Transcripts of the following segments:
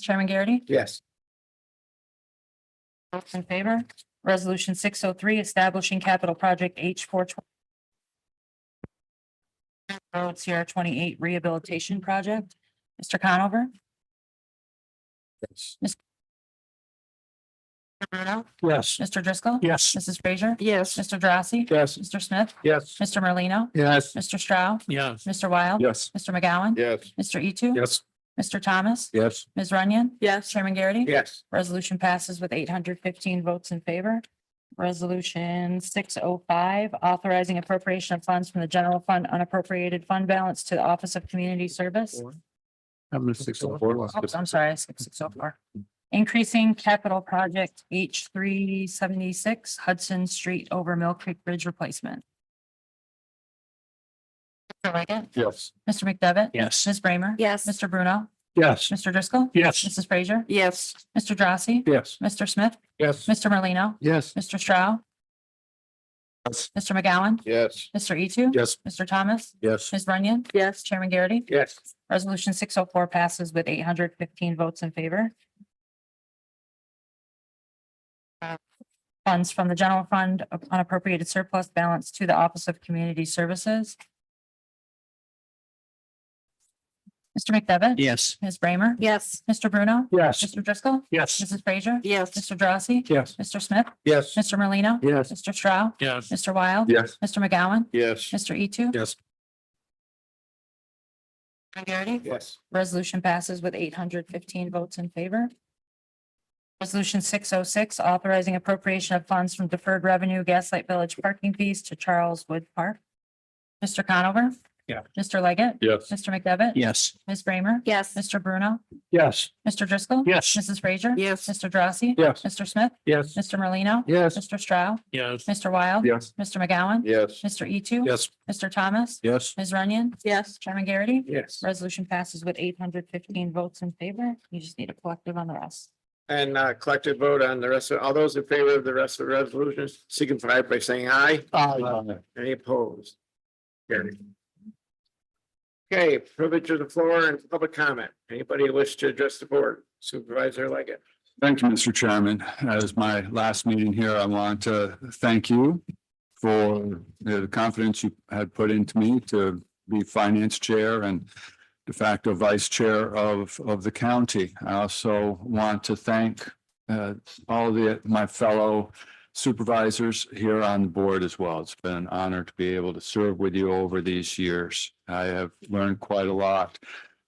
Chairman Garrity? Yes. All in favor? Resolution six oh three, establishing capital project H four twenty. Road Sierra twenty-eight rehabilitation project. Mr. Conover? Yes. Yes. Mr. Driscoll? Yes. Mrs. Frazier? Yes. Mr. Drossy? Yes. Mr. Smith? Yes. Mr. Merlino? Yes. Mr. Stroud? Yes. Mr. Wild? Yes. Mr. McGowan? Yes. Mr. Etu, Yes. Mr. Thomas? Yes. Ms. Runyon? Yes. Chairman Garrity? Yes. Resolution passes with eight hundred fifteen votes in favor. Resolution six oh five, authorizing appropriation of funds from the general fund unappropriated fund balance to the Office of Community Service. I'm at six oh four. Oops, I'm sorry, I skipped six oh four. Increasing capital project H three seventy-six Hudson Street over Mill Creek Bridge replacement. Mr. Leggett, Yes. Mr. McDevitt. Yes. Ms. Bramer. Yes. Mr. Bruno, Yes. Mr. Driscoll. Yes. Mrs. Frazier, Yes. Mr. Drossy, Yes. Mr. Smith, Yes. Mr. Merlino. Yes. Mr. Stroud? Yes. Mr. McGowan? Yes. Mr. E two? Yes. Mr. Thomas? Yes. Ms. Runyon? Yes. Chairman Garrity? Yes. Resolution six oh four passes with eight hundred fifteen votes in favor. Funds from the general fund of unappropriated surplus balance to the Office of Community Services. Mr. McDevitt? Yes. Ms. Bramer? Yes. Mr. Bruno? Yes. Mr. Driscoll? Yes. Mrs. Frazier? Yes. Mr. Drossy? Yes. Mr. Smith? Yes. Mr. Merlino? Yes. Mr. Stroud? Yes. Mr. Wild? Yes. Mr. McGowan? Yes. Mr. E two? Yes. Yes. Resolution passes with eight hundred fifteen votes in favor. Resolution six oh six, authorizing appropriation of funds from deferred revenue Gaslight Village parking fees to Charles Wood Park. Mr. Conover? Yeah. Mr. Leggett? Yes. Mr. McDevitt? Yes. Ms. Bramer? Yes. Mr. Bruno? Yes. Mr. Driscoll? Yes. Mrs. Frazier? Yes. Mr. Drossy? Yes. Mr. Smith? Yes. Mr. Merlino? Yes. Mr. Stroud? Yes. Mr. Wild? Yes. Mr. McGowan? Yes. Mr. E two? Yes. Mr. Thomas? Yes. Ms. Runyon? Yes. Chairman Garrity? Yes. Resolution passes with eight hundred fifteen votes in favor. You just need a collective on the rest. And uh, collective vote on the rest of, all those in favor of the rest of the resolutions, signify by saying aye. Any opposed? Carried. Okay, privilege of the floor and public comment. Anybody wish to address the board? Supervisor Leggett. Thank you, Mr. Chairman. As my last meeting here, I want to thank you for the confidence you had put into me to be finance chair and de facto vice chair of, of the county. I also want to thank uh, all the, my fellow supervisors here on the board as well. It's been an honor to be able to serve with you over these years. I have learned quite a lot.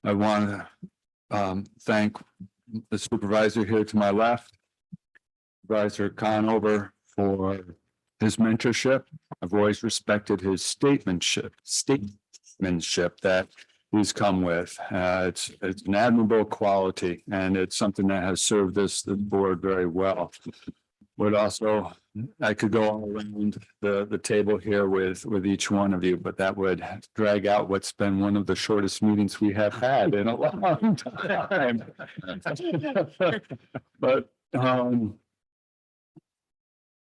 I want to um, thank the supervisor here to my left. Supervisor Conover for his mentorship. I've always respected his statementship, statementship that he's come with. Uh, it's, it's an admirable quality and it's something that has served this, the board very well. Would also, I could go all around the, the table here with, with each one of you, but that would drag out what's been one of the shortest meetings we have had in a long time. But, um,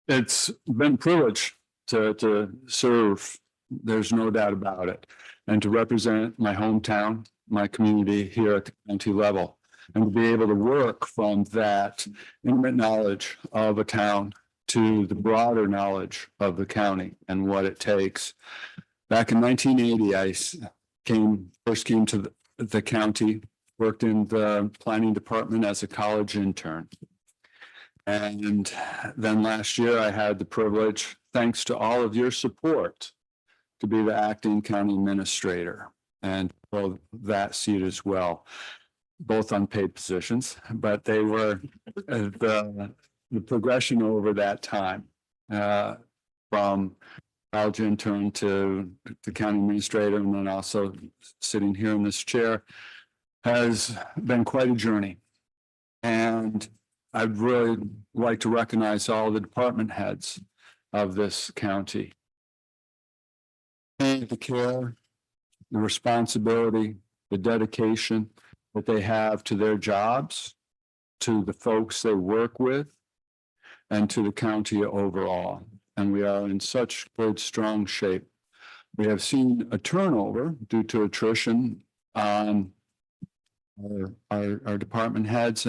it's been a privilege to, to serve, there's no doubt about it, and to represent my hometown, my community here at the county level. And to be able to work from that intimate knowledge of a town to the broader knowledge of the county and what it takes. Back in nineteen eighty, I s- came, first came to the- the county worked in the planning department as a college intern. And then last year I had the privilege, thanks to all of your support, to be the acting county administrator and hold that seat as well. Both unpaid positions, but they were uh, the, the progression over that time. uh, From college intern to the county administrator and then also sitting here in this chair has been quite a journey. And I'd really like to recognize all the department heads of this county. And the care, the responsibility, the dedication that they have to their jobs, to the folks they work with, and to the county overall. And we are in such good, strong shape. We have seen a turnover due to attrition on our, our, our department heads